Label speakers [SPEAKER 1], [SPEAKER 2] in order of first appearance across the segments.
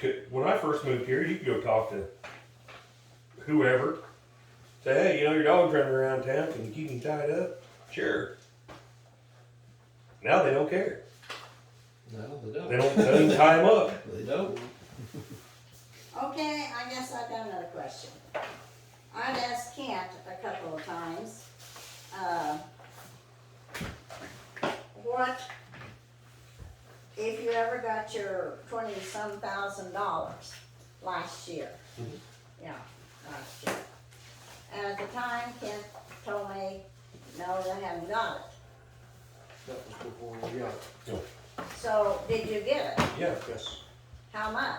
[SPEAKER 1] could- when I first moved here, you could go talk to whoever. Say, hey, you know, your dog's running around town. Can you keep him tied up? Sure. Now they don't care.
[SPEAKER 2] No, they don't.
[SPEAKER 1] They don't, they don't even tie him up.
[SPEAKER 2] They don't.
[SPEAKER 3] Okay, I guess I've got another question. I've asked Kent a couple of times, uh, what, if you ever got your twenty-some thousand dollars last year?
[SPEAKER 1] Mhm.
[SPEAKER 3] Yeah, last year. And at the time, Kent told me, no, they haven't got it.
[SPEAKER 4] That was before we got it.
[SPEAKER 3] So, did you get it?
[SPEAKER 1] Yeah.
[SPEAKER 4] Yes.
[SPEAKER 3] How much?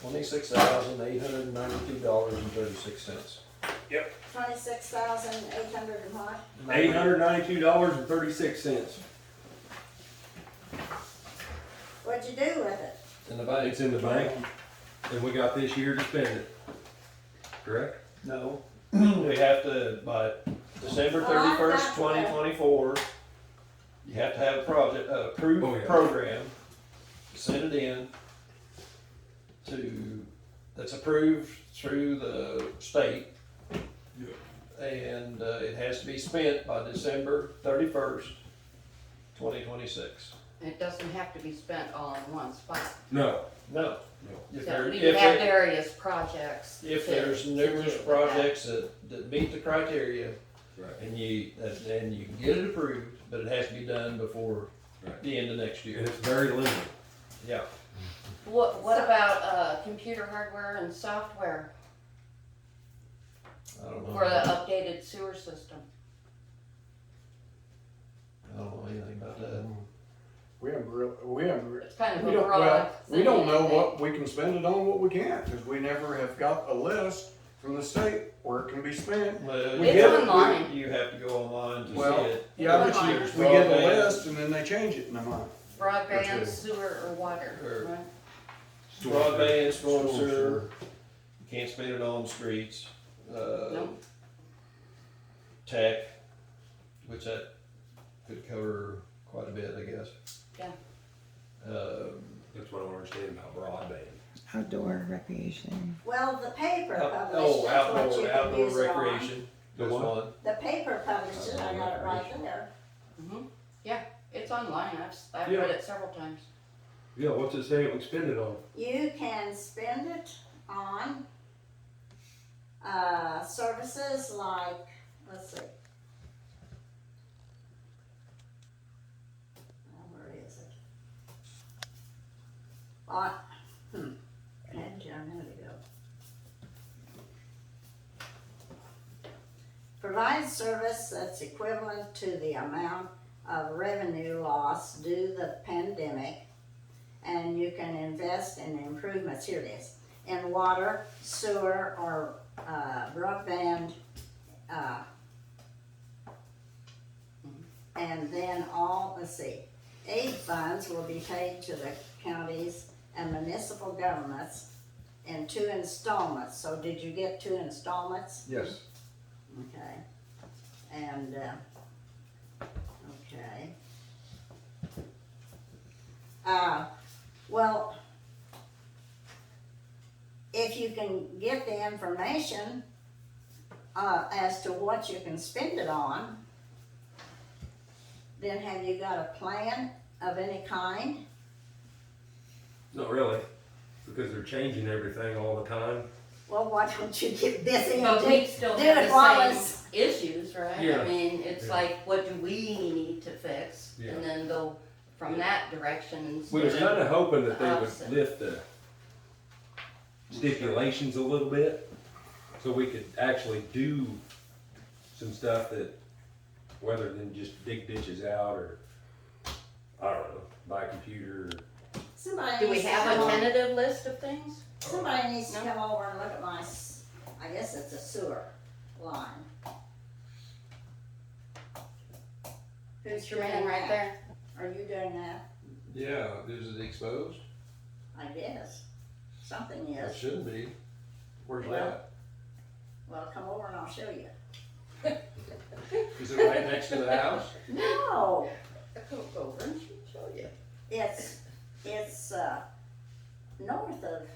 [SPEAKER 2] Twenty-six thousand, eight hundred and ninety-two dollars and thirty-six cents.
[SPEAKER 3] Twenty-six thousand eight hundred and what?
[SPEAKER 1] Eight hundred ninety-two dollars and thirty-six cents.
[SPEAKER 3] What'd you do with it?
[SPEAKER 2] In the bank.
[SPEAKER 5] It's in the bank, and we got this year to spend it. Correct?
[SPEAKER 2] No.
[SPEAKER 5] We have to, by
[SPEAKER 6] Oh,
[SPEAKER 5] December
[SPEAKER 3] Well, I've got
[SPEAKER 5] thirty-first,
[SPEAKER 3] to-
[SPEAKER 5] twenty twenty-four, you have to have a project, uh, approved
[SPEAKER 2] Oh, yeah.
[SPEAKER 5] program, send it in to, that's approved through the state. And, uh, it has to be spent by December thirty-first, twenty twenty-six.
[SPEAKER 6] It doesn't have to be spent all in one spot.
[SPEAKER 5] No. No.
[SPEAKER 2] No.
[SPEAKER 5] If
[SPEAKER 6] So
[SPEAKER 5] there-
[SPEAKER 6] we
[SPEAKER 5] if
[SPEAKER 6] could have
[SPEAKER 5] it-
[SPEAKER 6] various projects.
[SPEAKER 5] If
[SPEAKER 6] to-
[SPEAKER 5] there's
[SPEAKER 6] to
[SPEAKER 5] numerous
[SPEAKER 6] do.
[SPEAKER 5] projects that, that meet the criteria.
[SPEAKER 2] Right.
[SPEAKER 5] And you, and you can get it approved, but it has to be done before
[SPEAKER 2] Right.
[SPEAKER 5] the end of next year.
[SPEAKER 4] it's very limited.
[SPEAKER 5] Yeah.
[SPEAKER 6] What, what about, uh, computer hardware and software
[SPEAKER 5] I don't know.
[SPEAKER 6] for the
[SPEAKER 5] I
[SPEAKER 6] updated sewer system?
[SPEAKER 5] don't know anything about that.
[SPEAKER 4] We haven't real, we haven't, re-
[SPEAKER 6] It's kind of
[SPEAKER 4] we
[SPEAKER 6] a
[SPEAKER 4] don't,
[SPEAKER 6] broad
[SPEAKER 4] well,
[SPEAKER 6] thing.
[SPEAKER 4] we don't know what we can spend it on, what we can't, cause we never have got a list from the state where it can be spent.
[SPEAKER 5] Well,
[SPEAKER 4] We
[SPEAKER 6] It's
[SPEAKER 4] get it.
[SPEAKER 6] online.
[SPEAKER 5] You have to go online to
[SPEAKER 4] Well,
[SPEAKER 5] see it.
[SPEAKER 4] Yeah, but you,
[SPEAKER 6] Broadband.
[SPEAKER 4] we get a list and then they change it in a month.
[SPEAKER 6] Broadband,
[SPEAKER 4] Okay.
[SPEAKER 6] sewer, or
[SPEAKER 5] Or-
[SPEAKER 6] water, right?
[SPEAKER 5] Broadband, storm
[SPEAKER 4] Storm
[SPEAKER 5] sewer, you can't spend it on streets, uh,
[SPEAKER 6] No.
[SPEAKER 5] tech, which that could cover quite a bit, I guess.
[SPEAKER 6] Yeah.
[SPEAKER 5] Um,
[SPEAKER 1] That's what I don't understand about broadband.
[SPEAKER 7] outdoor recreation.
[SPEAKER 3] Well, the paper
[SPEAKER 5] Out-
[SPEAKER 3] published
[SPEAKER 5] Oh,
[SPEAKER 3] it, what you
[SPEAKER 5] outdoor,
[SPEAKER 3] can
[SPEAKER 5] outdoor
[SPEAKER 3] use it on.
[SPEAKER 5] recreation.
[SPEAKER 1] The
[SPEAKER 5] That's
[SPEAKER 1] what?
[SPEAKER 5] one.
[SPEAKER 3] The paper published it, I got it right there.
[SPEAKER 6] Mhm. Yeah, it's online. I've, s- I've
[SPEAKER 1] Yeah.
[SPEAKER 6] read it several times.
[SPEAKER 1] Yeah, what's it say it would spend it on?
[SPEAKER 3] You can spend it on, uh, services like, let's see. Now, Oh, where is it? On, hmm, I had it down a minute ago. Provide service that's equivalent to the amount of revenue loss due the pandemic and you can invest in improvements, here it is, in water, sewer, or, uh, broadband, uh, and then all, let's see, aid funds will be paid to the counties and municipal governments in two installments, so did you get two installments?
[SPEAKER 4] Yes.
[SPEAKER 3] Okay, and, uh, okay. Uh, well, if you can get the information, uh, as to what you can spend it on, then have you got a plan of any kind?
[SPEAKER 1] Not really, because they're changing everything all the time.
[SPEAKER 3] Well, why don't you get busy and
[SPEAKER 6] But we
[SPEAKER 3] do,
[SPEAKER 6] still
[SPEAKER 3] do
[SPEAKER 6] have
[SPEAKER 3] it while
[SPEAKER 6] the
[SPEAKER 3] it's
[SPEAKER 6] same issues, right?
[SPEAKER 1] Yeah.
[SPEAKER 6] I mean, it's
[SPEAKER 1] Yeah.
[SPEAKER 6] like, what do we need to fix?
[SPEAKER 1] Yeah.
[SPEAKER 6] And then go from that
[SPEAKER 5] We
[SPEAKER 6] direction
[SPEAKER 1] We
[SPEAKER 5] were
[SPEAKER 1] were
[SPEAKER 6] instead of.
[SPEAKER 1] kind of hoping that they
[SPEAKER 6] Opposite.
[SPEAKER 1] would lift the stipulations a little bit, so we could actually do some stuff that, rather than just dig ditches out or, I don't know, buy a computer.
[SPEAKER 3] Somebody
[SPEAKER 6] Do we
[SPEAKER 3] needs to
[SPEAKER 6] have
[SPEAKER 3] come
[SPEAKER 6] a
[SPEAKER 3] up-
[SPEAKER 6] tentative list of things?
[SPEAKER 3] Somebody needs to
[SPEAKER 6] No?
[SPEAKER 3] come over and look at my, s- I guess it's a sewer line. Who's
[SPEAKER 6] It's your man right there.
[SPEAKER 3] Are you doing that?
[SPEAKER 5] Yeah, is it exposed?
[SPEAKER 3] I guess. Something
[SPEAKER 5] It
[SPEAKER 3] is.
[SPEAKER 5] shouldn't be.
[SPEAKER 4] Where's
[SPEAKER 5] Well,
[SPEAKER 4] that?
[SPEAKER 3] Well, come over and I'll show you.
[SPEAKER 5] Is it right next to the house?
[SPEAKER 3] No,
[SPEAKER 6] Go over and she'll show you.
[SPEAKER 3] it's, it's, uh, north of